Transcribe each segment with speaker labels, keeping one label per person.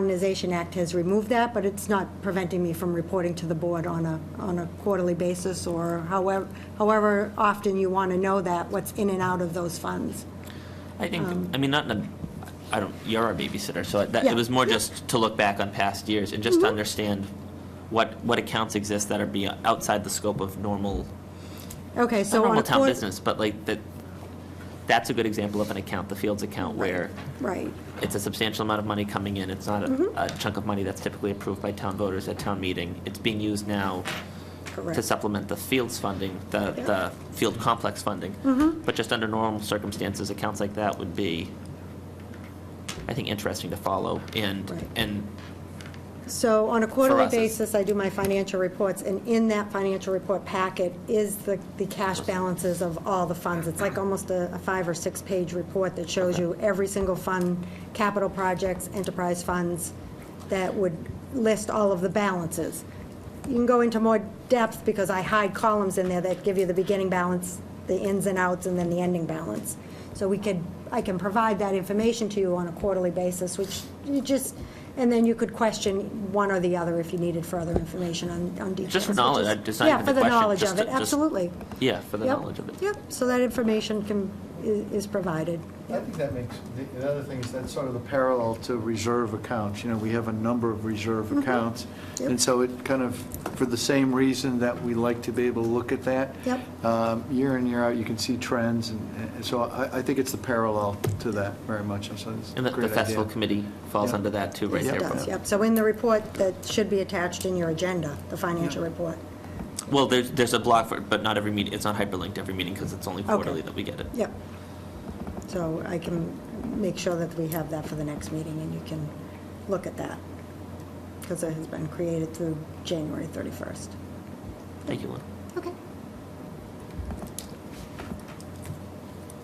Speaker 1: Modernization Act has removed that, but it's not preventing me from reporting to the board on a, on a quarterly basis or however, however often you want to know that, what's in and out of those funds.
Speaker 2: I think, I mean, not in a, I don't, you're our babysitter, so that,
Speaker 1: Um, Yeah. Mm-hmm.
Speaker 2: it was more just to look back on past years and just to understand what, what accounts exist that are be outside the scope of normal,
Speaker 1: Okay,
Speaker 2: not
Speaker 1: so on
Speaker 2: normal
Speaker 1: a
Speaker 2: town
Speaker 1: quarter.
Speaker 2: business, but like that, that's a good example of an account, the Fields account, where
Speaker 1: Right,
Speaker 2: it's a substantial amount of money coming in. It's not
Speaker 1: Mm-hmm.
Speaker 2: a, a chunk of money that's typically approved by town voters at town meeting. It's being used now to
Speaker 1: correct.
Speaker 2: supplement the fields funding, the,
Speaker 1: Yeah. Mm-hmm.
Speaker 2: the field complex funding. But just under normal circumstances, accounts like that would be, I think, interesting to follow. And,
Speaker 1: Right.
Speaker 2: and
Speaker 1: So on a quarterly
Speaker 2: us, it's-
Speaker 1: basis, I do my financial reports, and in that financial report packet is the, the cash balances of all the funds. It's like almost a a five or six-page report that shows you every single fund, capital projects, enterprise funds, that would list all of the balances. You can go into more depth, because I hide columns in there that give you the beginning balance, the ins and outs, and then the ending balance. So we could, I can provide that information to you on a quarterly basis, which you just, and then you could question one or the other if you needed further information on, on details.
Speaker 2: Just for
Speaker 1: which
Speaker 2: knowledge,
Speaker 1: is-
Speaker 2: I- it's not even a
Speaker 1: Yeah, for the
Speaker 2: question,
Speaker 1: knowledge
Speaker 2: just
Speaker 1: of
Speaker 2: to-
Speaker 1: it,
Speaker 2: just-
Speaker 1: absolutely.
Speaker 2: yeah, for the
Speaker 1: Yep,
Speaker 2: knowledge of it.
Speaker 1: Yep, so that information can, i- is provided.
Speaker 3: I think that makes, the- the other thing is that's sort of the parallel to reserve accounts. You know, we have a number of reserve accounts.
Speaker 1: Mm-hmm. Yep.
Speaker 3: And so it kind of, for the same reason that we like to be able to look at that.
Speaker 1: Yep.
Speaker 3: um, Year in, year out, you can see trends. And and so I, I think it's the parallel to that very much. And so it's a
Speaker 2: and the, the
Speaker 3: great idea.
Speaker 2: festival committee falls
Speaker 3: Yeah.
Speaker 2: under that too, right
Speaker 1: Yes, it
Speaker 2: there.
Speaker 1: does,
Speaker 2: Brooke.
Speaker 1: Yep, so in the report that should be attached in your agenda, the financial
Speaker 3: Yeah.
Speaker 1: report.
Speaker 2: Well, there's, there's a blog for it, but not every meeting, it's not hyperlinked every meeting because it's only
Speaker 1: Okay.
Speaker 2: quarterly that we get it.
Speaker 1: Yep. So I can make sure that we have that for the next meeting, and you can look at that, because it has been created through January 31st.
Speaker 2: Thank you, Lynn.
Speaker 1: Okay.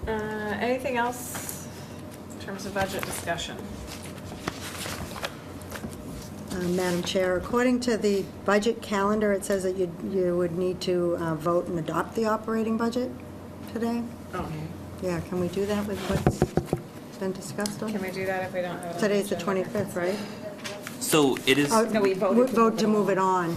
Speaker 4: Uh, Anything else in terms of budget discussion?
Speaker 1: Uh, Madam Chair, according to the budget calendar, it says that you, you would need to uh, vote and adopt the operating budget today?
Speaker 5: Oh,
Speaker 4: Okay.
Speaker 1: Yeah, can we do that with what's been discussed
Speaker 4: Can
Speaker 1: on?
Speaker 4: we do that if we don't have? it on
Speaker 1: Today's the
Speaker 4: agenda?
Speaker 1: 25th, right?
Speaker 2: So it is,
Speaker 1: Oh,
Speaker 4: No, we voted to
Speaker 1: Vote
Speaker 4: move
Speaker 1: to
Speaker 4: it
Speaker 1: move it on.
Speaker 6: No,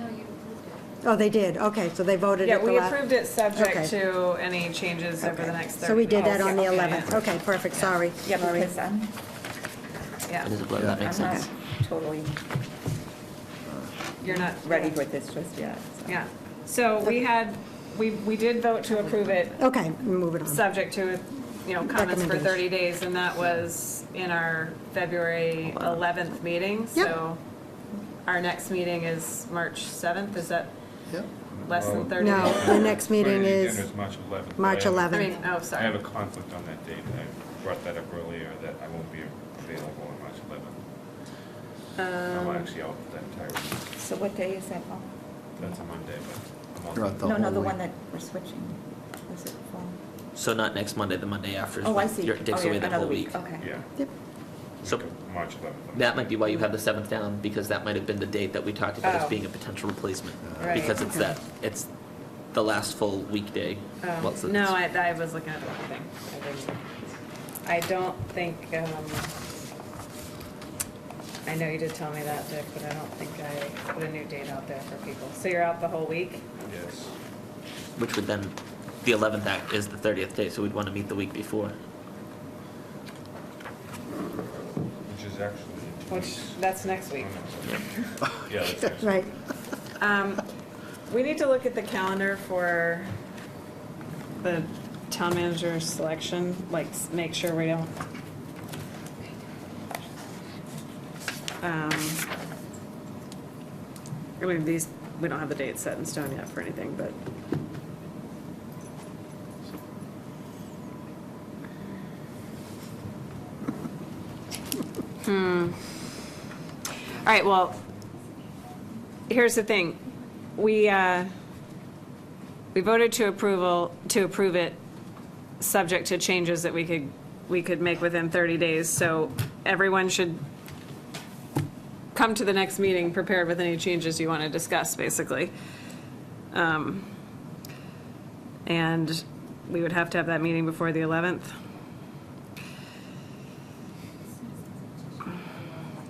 Speaker 6: you approved it.
Speaker 1: Oh, they did, okay, so they voted
Speaker 4: Yeah,
Speaker 1: at the
Speaker 4: we
Speaker 1: last.
Speaker 4: approved it
Speaker 1: Okay.
Speaker 4: subject to any changes over the next 30.
Speaker 1: So we did that on the
Speaker 4: Okay,
Speaker 1: 11th.
Speaker 4: yeah.
Speaker 1: Okay, perfect, sorry.
Speaker 5: Yeah,
Speaker 1: Sorry.
Speaker 5: because I'm,
Speaker 2: it is a
Speaker 4: Yeah,
Speaker 2: blog, that makes
Speaker 5: I'm not
Speaker 2: sense.
Speaker 5: totally
Speaker 4: you're not.
Speaker 5: ready for this just yet. so.
Speaker 4: Yeah, so we had, we, we did vote to approve it,
Speaker 1: Okay, move it on.
Speaker 4: subject to, you know, comments for
Speaker 1: Recommendation.
Speaker 4: 30 days, and that was in our February 11th meeting, so our next meeting is March 7th, is that
Speaker 3: Yeah.
Speaker 4: less
Speaker 2: Oh.
Speaker 4: than 30 days?
Speaker 1: No, the next meeting
Speaker 7: Friday
Speaker 1: is
Speaker 7: agenda March 11th.
Speaker 1: March
Speaker 7: I have a-
Speaker 4: I
Speaker 1: 11th.
Speaker 4: mean, oh,
Speaker 7: I
Speaker 4: sorry.
Speaker 7: have a conflict on that date. I brought that up earlier, that I won't be available on March 11th.
Speaker 4: Um,
Speaker 7: I'm actually out that entire week.
Speaker 5: So what day is that on?
Speaker 7: That's a Monday, but I'm
Speaker 3: You're
Speaker 7: also
Speaker 3: out the
Speaker 5: No, no,
Speaker 3: whole
Speaker 5: the
Speaker 3: week.
Speaker 5: one that we're switching. Is it fall?
Speaker 2: So not next Monday, the Monday after. is
Speaker 5: Oh, I
Speaker 2: when
Speaker 5: see.
Speaker 2: you're- Takes
Speaker 5: Oh, yeah,
Speaker 2: away that
Speaker 5: another
Speaker 2: whole week.
Speaker 5: Okay.
Speaker 7: Yeah. uh,
Speaker 1: Yep.
Speaker 2: So-
Speaker 7: March 11th.
Speaker 2: That might be why you have the seventh down, because that might have been the date that we talked about as
Speaker 4: Oh.
Speaker 2: being a potential replacement.
Speaker 4: Right,
Speaker 2: Because it's
Speaker 4: okay.
Speaker 2: that, it's the last full weekday.
Speaker 4: Oh,
Speaker 2: Well, it's-
Speaker 4: No, I, I was looking at the wrong thing. I didn't- I don't think, um, I know you did tell me that, Dick, but I don't think I put a new date out there for people. So you're out the whole week?
Speaker 7: Yes.
Speaker 2: Which would then, the eleventh act is the thirtieth day, so we'd want to meet the week before.
Speaker 7: Which is actually in two
Speaker 4: Which,
Speaker 7: weeks.
Speaker 4: that's next
Speaker 7: Oh,
Speaker 4: week.
Speaker 7: no, sorry. Yeah, that's next
Speaker 1: Right,
Speaker 4: Um, we need to look at the calendar for the town manager selection, like, s- make sure we don't. Um, I mean, these, we don't have the date set in stone yet for anything, but. Hmm. All right, well, here's the thing. We, uh, we voted to approval, to approve it, subject to changes that we could, we could make within 30 days. So everyone should come to the next meeting prepared with any changes you want to discuss, basically. Um, And we would have to have that meeting before the 11th.